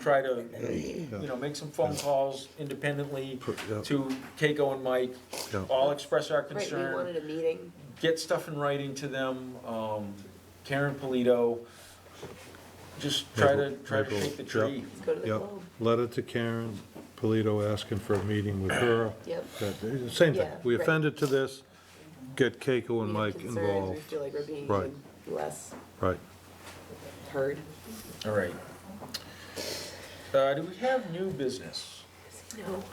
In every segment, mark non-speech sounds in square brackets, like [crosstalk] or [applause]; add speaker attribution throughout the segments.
Speaker 1: try to, you know, make some phone calls independently
Speaker 2: Per- yeah.
Speaker 1: to Keiko and Mike,
Speaker 2: Yeah.
Speaker 1: all express our
Speaker 3: Right, we wanted
Speaker 1: concern,
Speaker 3: a meeting.
Speaker 1: get stuff in writing to them, um, Karen Polito, just try to,
Speaker 2: Michael-
Speaker 1: try to
Speaker 2: Michael,
Speaker 1: shake the
Speaker 2: yeah.
Speaker 1: tree.
Speaker 3: Let's go to the
Speaker 2: Yep,
Speaker 3: Globe.
Speaker 2: letter to Karen Polito asking for a meeting with her.
Speaker 3: Yep.
Speaker 2: That- Same thing,
Speaker 3: Yeah,
Speaker 2: we
Speaker 3: right.
Speaker 2: offended to this, get Keiko and
Speaker 3: We have
Speaker 2: Mike
Speaker 3: concerns, We
Speaker 2: involved.
Speaker 3: feel like we're
Speaker 2: Right.
Speaker 3: being less
Speaker 2: Right,
Speaker 3: heard.
Speaker 1: All right. Uh, do we have new business?
Speaker 3: No.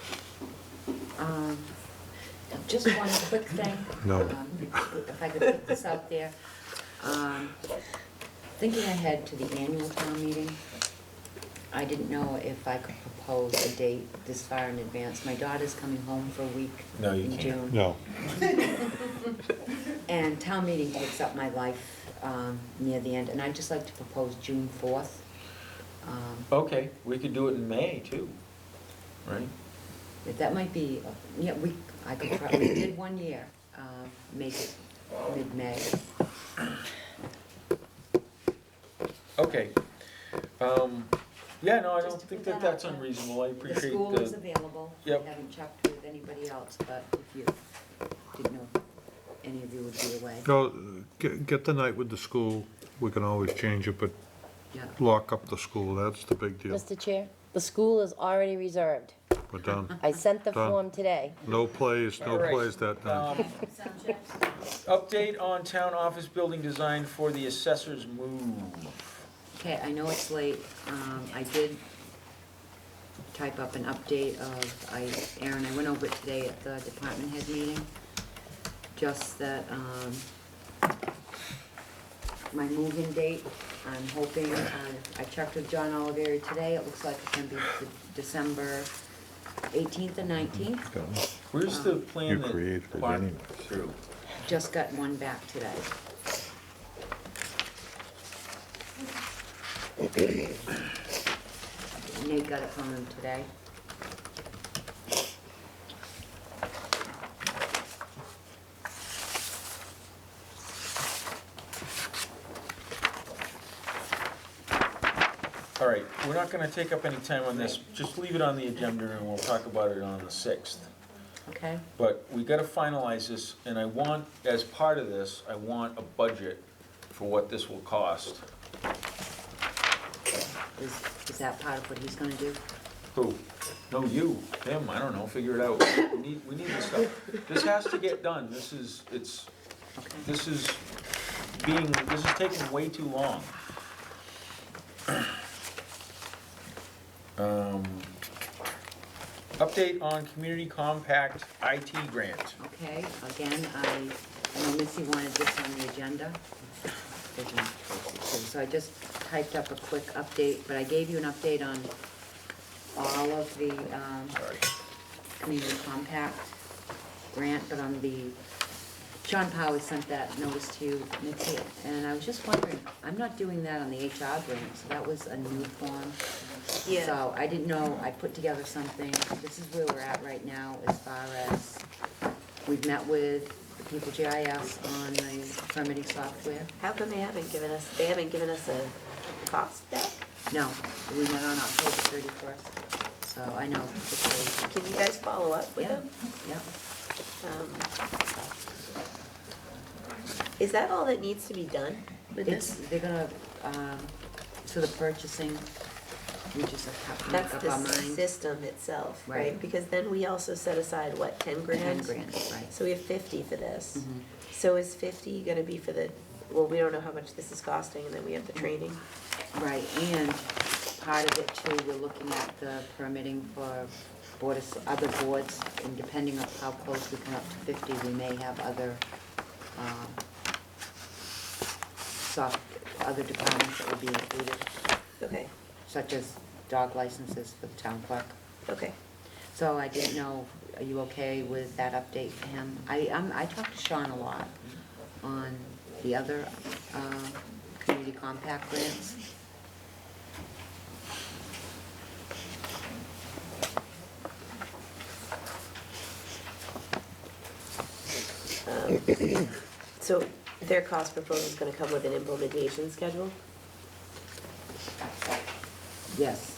Speaker 4: Um, Just one quick thing.
Speaker 2: No.
Speaker 4: um, If I could put this out there. Um, Thinking ahead to the annual town meeting, I didn't know if I could propose a date this far in advance. My daughter's coming home for a week
Speaker 1: No, you
Speaker 4: in
Speaker 1: can't.
Speaker 4: June.
Speaker 2: no,
Speaker 4: And town meeting takes up my life um, near the end, and I'd just like to propose June 4th. Um,
Speaker 1: Okay, we could do it in May too, right?
Speaker 4: But That might be, uh, yeah, we, I could probably, we did one year, um, make it mid-May.
Speaker 1: Okay. Um, yeah, no, I
Speaker 4: Just
Speaker 1: don't
Speaker 4: to
Speaker 1: think that
Speaker 4: put that out
Speaker 1: that's
Speaker 4: there.
Speaker 1: unreasonable, I
Speaker 4: The
Speaker 1: appreciate the.
Speaker 4: school is available.
Speaker 1: Yep.
Speaker 4: Haven't checked with anybody else, but if you didn't know if any of you would be away.
Speaker 2: no, uh, get, get the night with the school, we can always change it, but
Speaker 4: Yeah.
Speaker 2: lock up the school, that's the big deal.
Speaker 5: Mr. Chair, the school is already reserved.
Speaker 2: We're
Speaker 3: [laughs]
Speaker 2: done,
Speaker 5: I sent the
Speaker 2: Done.
Speaker 5: form today.
Speaker 2: no plays,
Speaker 1: All
Speaker 2: no
Speaker 1: right.
Speaker 2: plays that night.
Speaker 1: Um, Update on town office building design for the assessor's move.
Speaker 4: Okay, I know it's late. Um, I did type up an update of, I, Aaron, I went over it today at the department head meeting. Just that, um, my move-in date, I'm hoping, uh, I checked with John Oliveri today. It looks like it can be the December eighteenth and nineteenth.
Speaker 1: Where's the plan
Speaker 2: You
Speaker 1: that
Speaker 2: created it
Speaker 1: Clark
Speaker 2: anyway.
Speaker 1: drew?
Speaker 4: Just got one back today. Nate got it from him today.
Speaker 1: All right, we're not gonna take up any time on this, just leave it on the agenda and we'll talk about it on the sixth.
Speaker 4: Okay,
Speaker 1: But we gotta finalize this, and I want, as part of this, I want a budget for what this will cost.
Speaker 4: is, is that part of what he's gonna do?
Speaker 1: Who? No, you, him, I don't know, figure it out. We need, we need this stuff. This has to get done, this is, it's,
Speaker 4: Okay,
Speaker 1: this is being, this is taking way too long. Um, Update on community compact IT grant.
Speaker 4: okay, again, I, I know Missy wanted this on the agenda. There's no choice to do. So I just typed up a quick update, but I gave you an update on all of the, um,
Speaker 1: Sorry.
Speaker 4: community compact grant, but on the, John Powers sent that notice to you, Mitzi, and I was just wondering, I'm not doing that on the HR grant, so that was a new form.
Speaker 3: Yeah.
Speaker 4: So I didn't know, I put together something, this is where we're at right now as far as, we've met with the people GIS on the permitting software.
Speaker 3: How come they haven't given us, they haven't given us a cost back?
Speaker 4: No, we met on October thirty-first, so I know, it's late.
Speaker 3: Can you guys follow up with
Speaker 4: yeah,
Speaker 3: them?
Speaker 4: yeah.
Speaker 3: Um, Is that all that needs to be done with
Speaker 4: It's,
Speaker 3: this?
Speaker 4: they're gonna, um, so the purchasing, we just have to
Speaker 3: That's
Speaker 4: make up
Speaker 3: the
Speaker 4: our mind.
Speaker 3: system itself, right?
Speaker 4: Right.
Speaker 3: Because then we also set aside, what, ten grand? Mm-hmm.
Speaker 4: Ten grand, right.
Speaker 3: So we have fifty for this.
Speaker 4: Mhm.
Speaker 3: So is fifty gonna be for the, well, we don't know how much this is costing, and then we have the training.
Speaker 4: Right, and part of it too, we're looking at the permitting for board, of- other boards, and depending on how close we come up to fifty, we may have other, um, soft, other departments that will be included,
Speaker 3: Okay,
Speaker 4: such as dog licenses for the town clerk.
Speaker 3: okay.
Speaker 4: So I didn't know, are you okay with that update for him? I, um, I talked to Sean a lot on the other, uh, community compact grants.
Speaker 3: So their cost proposal is gonna come with an implementation schedule?
Speaker 4: Yes,